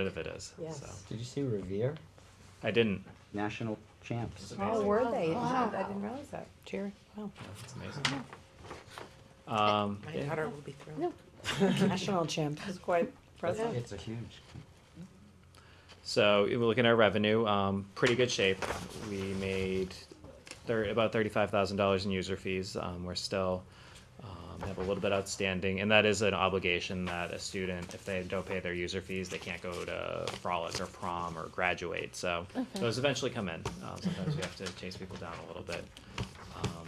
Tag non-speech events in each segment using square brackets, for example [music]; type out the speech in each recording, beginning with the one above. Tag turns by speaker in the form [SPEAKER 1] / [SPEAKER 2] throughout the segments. [SPEAKER 1] rid of it is.
[SPEAKER 2] Yes.
[SPEAKER 1] So.
[SPEAKER 3] Did you see Revere?
[SPEAKER 1] I didn't.
[SPEAKER 3] National champs.
[SPEAKER 1] It's
[SPEAKER 2] Oh,
[SPEAKER 1] amazing.
[SPEAKER 2] were they? I didn't realize that. Jerry, wow.
[SPEAKER 1] It's amazing. Um,
[SPEAKER 4] My
[SPEAKER 1] yeah.
[SPEAKER 4] daughter will be thrilled.
[SPEAKER 2] No. [laughs] National champ is quite impressive.
[SPEAKER 3] It's a huge.
[SPEAKER 1] So if we look at our revenue, um, pretty good shape. We made thir- about thirty-five thousand dollars in user fees. Um, we're still um, have a little bit outstanding, and that is an obligation that a student, if they don't pay their user fees, they can't go to frolic or prom or graduate. So those eventually come in. Um, sometimes we have to chase people down a little bit. Um,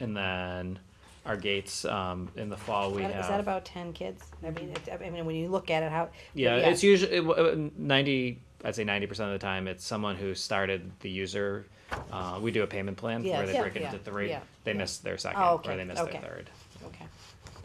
[SPEAKER 1] and then our gates um, in the fall we
[SPEAKER 2] Is
[SPEAKER 1] have.
[SPEAKER 2] that about ten kids? I mean, it- I mean, when you look at it, how.
[SPEAKER 1] Yeah, it's usually it- uh, ninety. I'd say ninety percent of the time, it's someone who started the user. Uh, we do a payment plan where
[SPEAKER 2] Yes.
[SPEAKER 1] they
[SPEAKER 2] Yeah,
[SPEAKER 1] break it
[SPEAKER 4] yeah,
[SPEAKER 1] into three.
[SPEAKER 4] yeah,
[SPEAKER 1] they
[SPEAKER 2] yeah.
[SPEAKER 1] miss their second,
[SPEAKER 2] Oh, okay,
[SPEAKER 1] or they miss
[SPEAKER 2] okay.
[SPEAKER 1] their third.
[SPEAKER 2] Okay.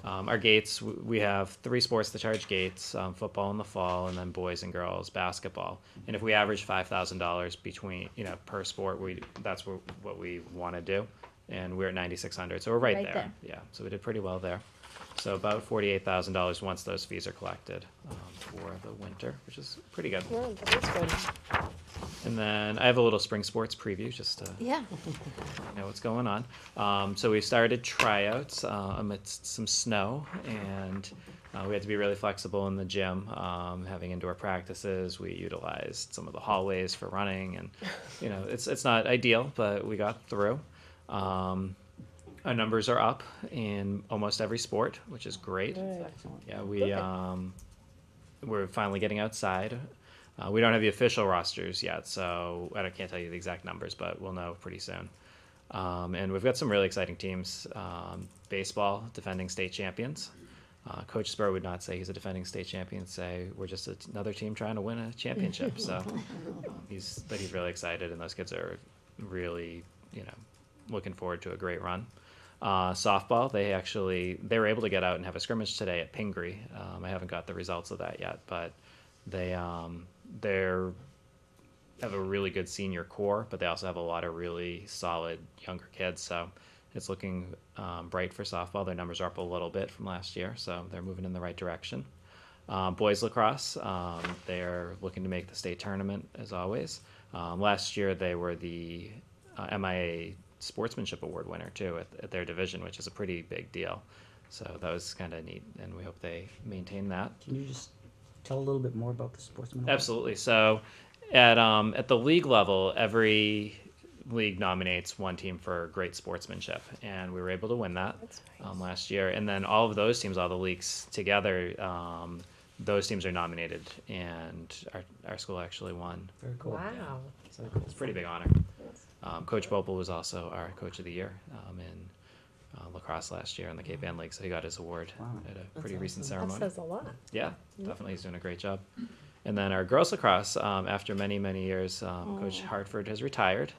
[SPEAKER 1] Um, our gates, w- we have three sports to charge gates: um, football in the fall, and then boys and girls basketball. And if we average five thousand dollars between, you know, per sport, we that's what, what we want to do. And we're at ninety six hundred, so we're right,
[SPEAKER 5] Right
[SPEAKER 1] there.
[SPEAKER 5] there.
[SPEAKER 1] Yeah, so we did pretty well there. So about forty eight thousand dollars once those fees are collected um, for the winter, which is pretty good.
[SPEAKER 5] Well, that is good.
[SPEAKER 1] And then I have a little spring sports preview just to
[SPEAKER 5] Yeah.
[SPEAKER 1] know what's going on. Um, so we started tryouts uh, amidst some snow, and uh, we had to be really flexible in the gym, um, having indoor practices. We utilized some of the hallways for running, and you know, it's it's not ideal, but we got through. Um, our numbers are up in almost every sport, which is great. Yeah, we um, we're finally getting outside. Uh, we don't have the official rosters yet, so I don't- can't tell you the exact numbers, but we'll know pretty soon. Um, and we've got some really exciting teams. Um, baseball, defending state champions. Uh, Coach Spur would not say he's a defending state champion. Say we're just a, another team trying to win a championship. so um, he's but he's really excited, and those kids are really you know looking forward to a great run. Uh, softball, they actually they were able to get out and have a scrimmage today at Pingree. Um, I haven't got the results of that yet, but they um, they're have a really good senior core, but they also have a lot of really solid younger kids. So it's looking um, bright for softball. Their numbers are up a little bit from last year, so they're moving in the right direction. Um, boys lacrosse, um, they're looking to make the state tournament as always. Um, last year they were the uh, MIA Sportsmanship Award winner too at, at their division, which is a pretty big deal. So that was kind of neat, and we hope they maintain that.
[SPEAKER 3] Can you just tell a little bit more about the sportsman? Award?
[SPEAKER 1] Absolutely. So, at um, at the league level, every league nominates one team for great sportsmanship, and we were able to win that um, last year. And then all of those teams, all the leagues together, um, those teams are nominated, and our our school actually won.
[SPEAKER 3] Very cool.
[SPEAKER 4] Wow.
[SPEAKER 1] So it's a pretty big honor. Um, Coach Bopel was also our coach of the year um, in uh, lacrosse last year in the Cape Ann League, so he got his award
[SPEAKER 3] Wow.
[SPEAKER 1] at a pretty recent
[SPEAKER 4] That
[SPEAKER 1] ceremony.
[SPEAKER 4] says a lot.
[SPEAKER 1] Yeah, definitely. He's doing a great job. And then our girls lacrosse, um, after many, many years, um, Coach Hartford has retired.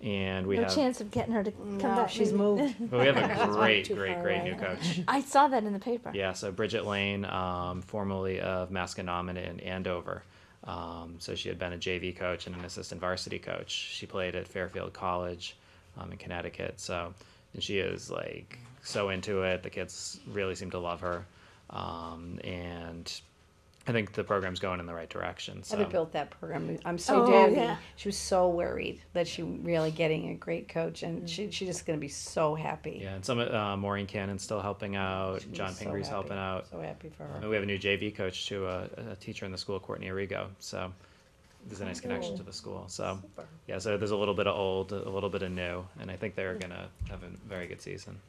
[SPEAKER 1] And we
[SPEAKER 5] no
[SPEAKER 1] have
[SPEAKER 5] chance of getting her to come
[SPEAKER 2] No,
[SPEAKER 5] back.
[SPEAKER 2] she's
[SPEAKER 5] maybe.
[SPEAKER 2] moved.
[SPEAKER 1] but we have a great,
[SPEAKER 2] too
[SPEAKER 1] great,
[SPEAKER 2] far
[SPEAKER 1] great
[SPEAKER 2] away.
[SPEAKER 1] new coach.
[SPEAKER 5] [laughs] I saw that in the paper.
[SPEAKER 1] Yeah, so Bridget Lane, um, formerly of Masconomet in Andover. Um, so she had been a JV coach and an assistant varsity coach. She played at Fairfield College um, in Connecticut. So and she is like so into it. The kids really seem to love her. Um, and I think the program's going in the right direction. So
[SPEAKER 2] Ever built that program. I'm so
[SPEAKER 5] Oh,
[SPEAKER 2] happy.
[SPEAKER 5] yeah.
[SPEAKER 2] She was so worried that she really getting a great coach, and she she just gonna be so happy.
[SPEAKER 1] Yeah, and some uh, Maureen Cannon's still helping out.
[SPEAKER 2] She was
[SPEAKER 1] John
[SPEAKER 2] so
[SPEAKER 1] Pingree is
[SPEAKER 2] happy.
[SPEAKER 1] helping out.
[SPEAKER 2] So happy for
[SPEAKER 1] And
[SPEAKER 2] her.
[SPEAKER 1] we have a new JV coach to a, a teacher in the school, Courtney Arrigo. So there's a nice
[SPEAKER 5] Oh.
[SPEAKER 1] connection to the school. So yeah, so there's a little bit of old, a little bit of new, and I think
[SPEAKER 5] Hmm.
[SPEAKER 1] they're gonna have a very good season.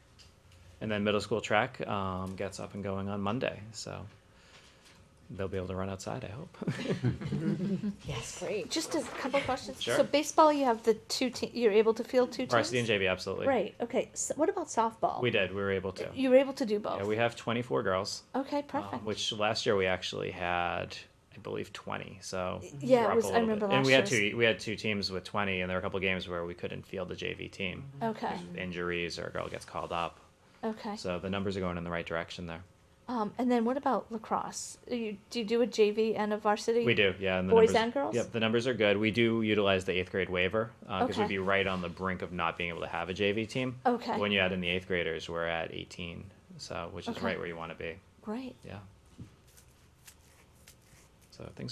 [SPEAKER 1] And then middle school track um, gets up and going on Monday, so they'll be able to run outside. I hope. [laughs]
[SPEAKER 2] Yes, great.
[SPEAKER 5] Just a couple questions.
[SPEAKER 1] Sure.
[SPEAKER 5] So baseball, you have the two te- You're able to field two teams.
[SPEAKER 1] Varsity and JV, absolutely.
[SPEAKER 5] Right. Okay. So what about softball?
[SPEAKER 1] We did. We were able to.
[SPEAKER 5] You were able to do both.
[SPEAKER 1] Yeah, we have 24 girls.
[SPEAKER 5] okay.
[SPEAKER 1] um,
[SPEAKER 5] Perfect.
[SPEAKER 1] which last year we actually had, I believe, twenty. So we're
[SPEAKER 5] yeah, it
[SPEAKER 1] up a
[SPEAKER 5] was- I
[SPEAKER 1] little
[SPEAKER 5] remember
[SPEAKER 1] bit. And we had
[SPEAKER 5] last
[SPEAKER 1] two. We had two teams with twenty, and there were a couple games where we couldn't field the JV team,
[SPEAKER 5] Mm-hmm. okay.
[SPEAKER 1] injuries or a girl gets called up.
[SPEAKER 5] Okay.
[SPEAKER 1] So the numbers are going in the right direction there.
[SPEAKER 5] Um, and then what about lacrosse? You do you do a JV and a varsity?
[SPEAKER 1] We do, yeah. And the
[SPEAKER 5] Boys
[SPEAKER 1] numbers,
[SPEAKER 5] and girls?
[SPEAKER 1] Yep, the numbers are good. We do utilize the eighth grade waiver because
[SPEAKER 5] Okay.
[SPEAKER 1] we'd be right on the brink of not being able to have a JV team.
[SPEAKER 5] Okay.
[SPEAKER 1] When you add in the eighth graders, we're at eighteen, so which is
[SPEAKER 5] Okay.
[SPEAKER 1] right where you want to be.
[SPEAKER 5] Great.
[SPEAKER 1] Yeah. So things are.